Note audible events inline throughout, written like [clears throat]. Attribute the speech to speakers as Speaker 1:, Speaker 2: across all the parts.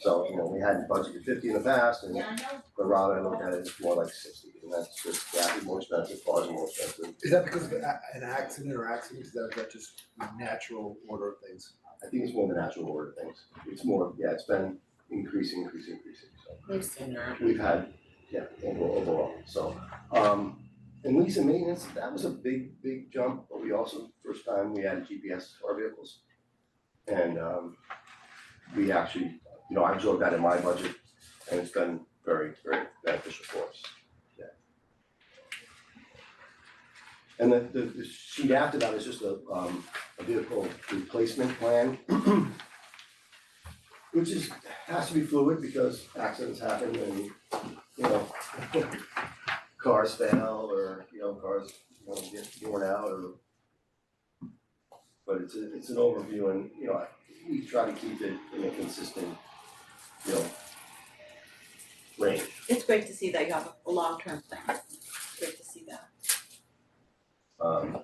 Speaker 1: So, you know, we hadn't budgeted fifty in the past and
Speaker 2: Yeah, I know.
Speaker 1: the route I looked at is more like sixty. And that's just, that is more expensive, cars are more expensive.
Speaker 3: Is that because of a- an accident or accidents, is that, is that just the natural order of things?
Speaker 1: I think it's more the natural order of things. It's more, yeah, it's been increasing, increasing, increasing, so.
Speaker 2: We've seen that.
Speaker 1: we've had, yeah, overall, overall, so. Um, and lease and maintenance, that was a big, big jump, but we also, first time we added GPS to our vehicles. And, um, we actually, you know, I absorbed that in my budget, and it's been very, very beneficial for us, yeah. And the, the, the sheet after that is just a, um, a vehicle replacement plan. [clears throat] Which is, has to be fluid because accidents happen and, you know, [laughs] cars fail or, you know, cars, you know, get worn out or. But it's a, it's an overview and, you know, I- we try to keep it in a consistent, you know, range.
Speaker 4: It's great to see that you have a long-term plan. Great to see that.
Speaker 1: Um,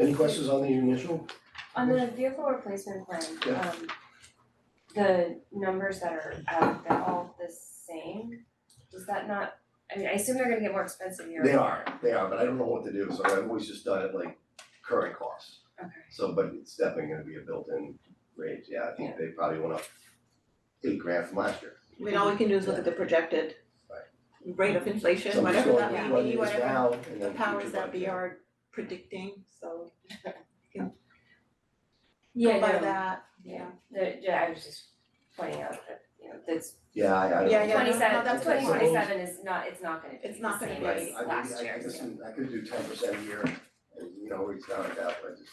Speaker 1: any questions on the initial?
Speaker 5: On the vehicle replacement plan,
Speaker 1: Yeah.
Speaker 5: um, the numbers that are out, they're all the same? Does that not, I mean, I assume they're gonna get more expensive year.
Speaker 1: They are, they are, but I don't know what to do, so I've always just done it like current costs.
Speaker 5: Okay,
Speaker 1: So, but it's definitely gonna be a built-in raise, yeah, I think they probably went up eight grand from last year.
Speaker 4: I mean, all we can do is look at the projected rate of inflation,
Speaker 1: So we
Speaker 4: whatever
Speaker 1: saw
Speaker 4: that
Speaker 1: what
Speaker 4: may
Speaker 1: it
Speaker 4: be,
Speaker 1: is
Speaker 4: whatever
Speaker 1: now, and
Speaker 4: the
Speaker 1: then
Speaker 4: powers
Speaker 1: future
Speaker 4: that be
Speaker 1: budget.
Speaker 4: are predicting, so
Speaker 5: yeah,
Speaker 4: by
Speaker 5: no,
Speaker 4: that,
Speaker 5: yeah.
Speaker 4: yeah.
Speaker 5: The- yeah, I was just pointing out that, you know, that's
Speaker 1: Yeah, I, I don't know.
Speaker 4: Yeah, yeah. no, no,
Speaker 5: twenty seven,
Speaker 4: that's
Speaker 5: twenty
Speaker 4: what I
Speaker 5: twenty seven is not, it's not gonna be
Speaker 4: It's not
Speaker 5: the
Speaker 4: gonna
Speaker 5: same
Speaker 4: be.
Speaker 5: as
Speaker 1: Right, I
Speaker 5: last
Speaker 1: mean, I,
Speaker 5: year's.
Speaker 1: listen, I could do ten percent a year, and you know, it's not that, but I just,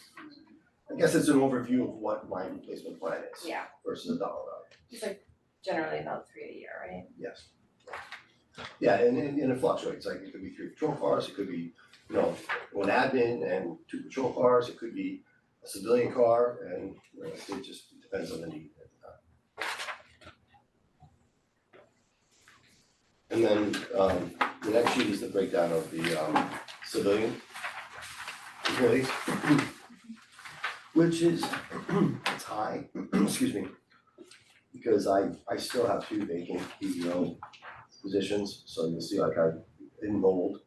Speaker 1: I guess it's an overview of what my replacement plan is
Speaker 5: Yeah,
Speaker 1: versus a dollar value,
Speaker 5: it's like generally about three a year, right?
Speaker 1: yes. Yeah, and and and it fluctuates, like it could be three patrol cars, it could be, you know, one admin and two patrol cars, it could be a civilian car, and you know, it just depends on the need at the time. And then um the next sheet is the breakdown of the um civilian employees. [clears throat] Which is, [clears throat] it's high, [clears throat] excuse me, because I I still have two vacant PEO positions, so you'll see like I enrolled.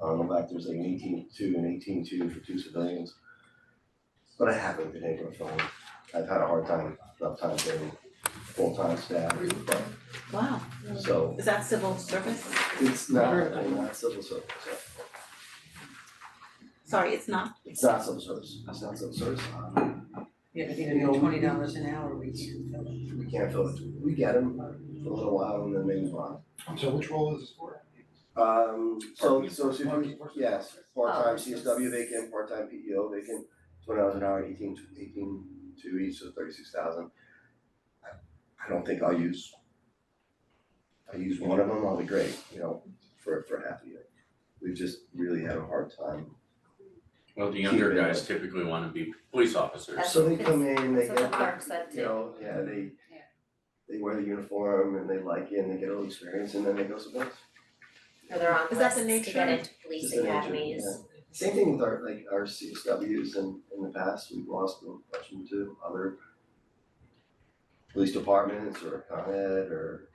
Speaker 1: Um, back there's like an eighteen two and eighteen two for two civilians. But I haven't been able to fill them. I've had a hard time, enough time getting full-time staff, but
Speaker 4: Wow,
Speaker 1: so
Speaker 4: is that civil service?
Speaker 1: it's not, I'm not civil service, so.
Speaker 4: Sorry, it's not,
Speaker 1: It's not civil service, it's not civil service.
Speaker 6: Yeah, but even at twenty dollars an hour, we can fill it.
Speaker 1: We can't fill it. We get them for a little while and then they move on.
Speaker 3: So which role is this for?
Speaker 1: Um, so, so, so, you-
Speaker 3: Parking.
Speaker 1: yes, part-time
Speaker 5: Oh, it's just-
Speaker 1: CSW vacant, part-time PEO vacant, twenty hours an hour, eighteen, to- eighteen, two each, so thirty-six thousand. I don't think I'll use, I use one of them, I'll be great, you know, for, for half a year. We've just really had a hard time.
Speaker 7: Well, the
Speaker 1: Keep
Speaker 7: younger
Speaker 1: it.
Speaker 7: guys typically wanna be police officers.
Speaker 5: That's-
Speaker 1: So they come in, they
Speaker 5: That's
Speaker 1: get,
Speaker 5: what Mark said
Speaker 1: you
Speaker 5: too.
Speaker 1: know, yeah, they,
Speaker 5: Yeah.
Speaker 1: they wear the uniform and they like it and they get a little experience and then they go somewhere else.
Speaker 5: Or they're on
Speaker 4: Is that
Speaker 5: lists
Speaker 4: the
Speaker 5: to get
Speaker 4: nature?
Speaker 5: into police
Speaker 1: Just
Speaker 5: [laughs]
Speaker 1: an agent,
Speaker 5: academies.
Speaker 1: yeah. Same thing with our, like, our CSWs in, in the past, we've lost one question to other police departments or Con Ed or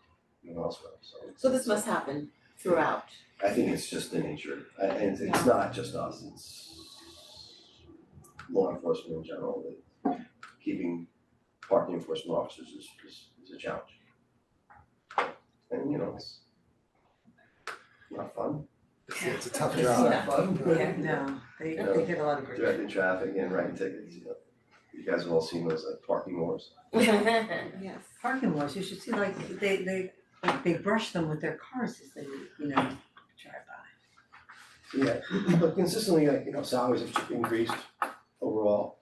Speaker 1: you know, elsewhere, so.
Speaker 4: so this must happen throughout.
Speaker 1: I think it's just the nature, I- and it's, it's
Speaker 4: Yeah.
Speaker 1: not just us, it's law enforcement in general, that keeping parking enforcement officers is, is, is a challenge. And, you know, it's not fun,
Speaker 3: It's, it's a tough
Speaker 4: Yeah.
Speaker 3: job.
Speaker 1: not fun.
Speaker 6: Yeah, no, they they get a lot of grief.
Speaker 1: directing traffic and writing tickets, you know. You guys have all seen those like parking wars.
Speaker 4: Yes.
Speaker 6: Parking lots, you should see like they they like they brush them with their cars as they, you know, drive by.
Speaker 1: So, Yeah, but consistently, like, you know, salaries have increased overall,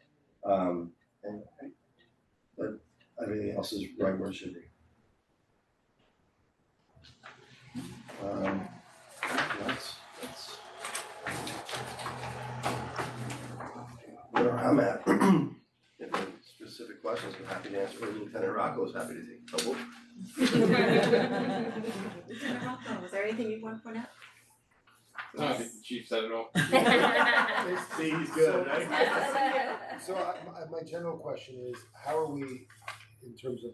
Speaker 1: um, and but everything else is right where it should be. Um, that's, that's. Where I'm at. [clears throat] If there are specific questions, I'm happy to answer, or Lieutenant Rocco is happy to take trouble.
Speaker 4: Lieutenant Rocco, was there anything you want to point out?
Speaker 8: No, I think the chief said it all.
Speaker 5: [laughs]
Speaker 6: [laughs]
Speaker 1: See, he's
Speaker 3: good,
Speaker 1: [laughs]
Speaker 3: uh,
Speaker 1: right?
Speaker 3: So I, my, my general question is, how are we in terms of